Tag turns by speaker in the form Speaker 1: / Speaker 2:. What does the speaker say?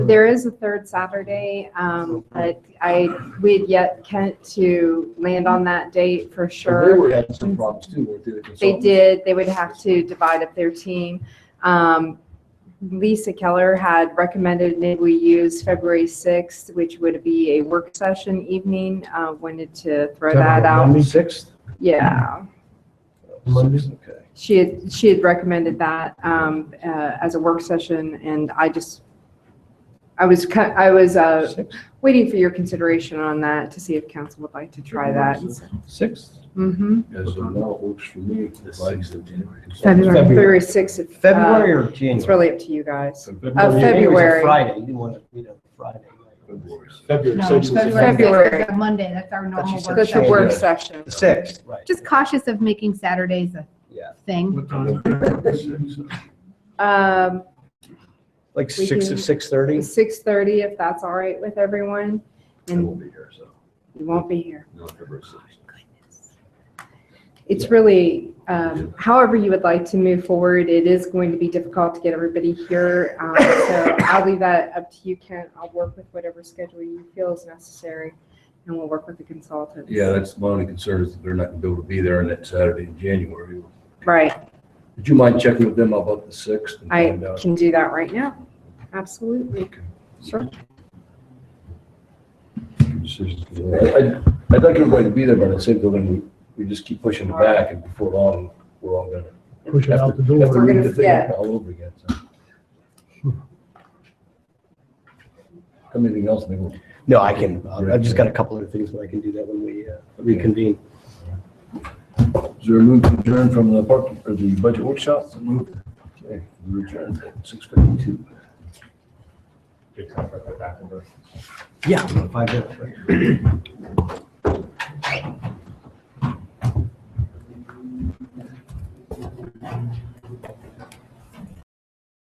Speaker 1: There is a third Saturday, um, but I, we had yet Kent to land on that date for
Speaker 2: And They
Speaker 1: sure.
Speaker 2: were having some problems too with the consultants.
Speaker 1: They did, they would have to divide up their team. Um, Lisa Keller had recommended that we use February 6th, which would be a work session evening. Uh, Wanted to throw that out.
Speaker 3: Sixth?
Speaker 1: Yeah,
Speaker 3: Monday.
Speaker 2: Okay.
Speaker 1: she had, she had recommended that um, uh, as a work session, and I just, I was, cut- I was uh,
Speaker 3: Sixth?
Speaker 1: waiting for your consideration on that to see if council would like to try that.
Speaker 3: Sixth?
Speaker 1: Mhm.
Speaker 2: As of now, it works for me. Likes it.
Speaker 1: February, February
Speaker 3: February.
Speaker 1: 6th. if, uh,
Speaker 3: February or January?
Speaker 1: It's really up to you guys.
Speaker 3: January was a
Speaker 1: February.
Speaker 3: Friday, you didn't want to meet on Friday.
Speaker 2: February
Speaker 4: No,
Speaker 2: sixth is a
Speaker 4: February
Speaker 2: Friday.
Speaker 1: February.
Speaker 4: fifth is a Monday, that's our
Speaker 3: But she
Speaker 4: normal
Speaker 3: said
Speaker 4: work
Speaker 1: That's a
Speaker 4: session.
Speaker 1: work session.
Speaker 3: Sixth, right.
Speaker 4: Just cautious of making Saturdays a
Speaker 3: Yeah.
Speaker 4: thing.
Speaker 1: Um,
Speaker 3: Like
Speaker 1: We
Speaker 3: six
Speaker 1: can-
Speaker 3: to six thirty?
Speaker 1: 6:30, if that's all right with everyone,
Speaker 2: I
Speaker 1: and
Speaker 2: won't be here, so,
Speaker 1: you won't be here.
Speaker 2: no, February sixth.
Speaker 1: It's really, um, however you would like to move forward, it is going to be difficult to get everybody here. Um, So I'll leave that up to you, Kent. I'll work with whatever schedule you feel is necessary, and we'll work with the consultants.
Speaker 5: Yeah, that's my only concern is that they're not gonna be able to be there on that Saturday in January.
Speaker 1: Right.
Speaker 5: Would you mind checking with them about the sixth? and
Speaker 1: I
Speaker 5: find out?
Speaker 1: can do that right now. Absolutely.
Speaker 5: Okay.
Speaker 1: Sure.
Speaker 5: I- I'd I'd like everybody to be there, but at the same time, we, we just keep pushing it back and before long, we're all gonna.
Speaker 6: Push it out the
Speaker 5: have to- have to
Speaker 6: door.
Speaker 1: We're
Speaker 5: read the
Speaker 1: gonna-
Speaker 5: thing
Speaker 1: yeah.
Speaker 5: All over again, so. Anything else? Maybe we'll-
Speaker 3: No, I can, uh, I've just got a couple other things, but I can do that when we uh, reconvene.
Speaker 5: Is there a move to adjourn from the park, or the budget workshop? Okay, we adjourn at six fifty-two.
Speaker 3: Yeah. Five minutes, right.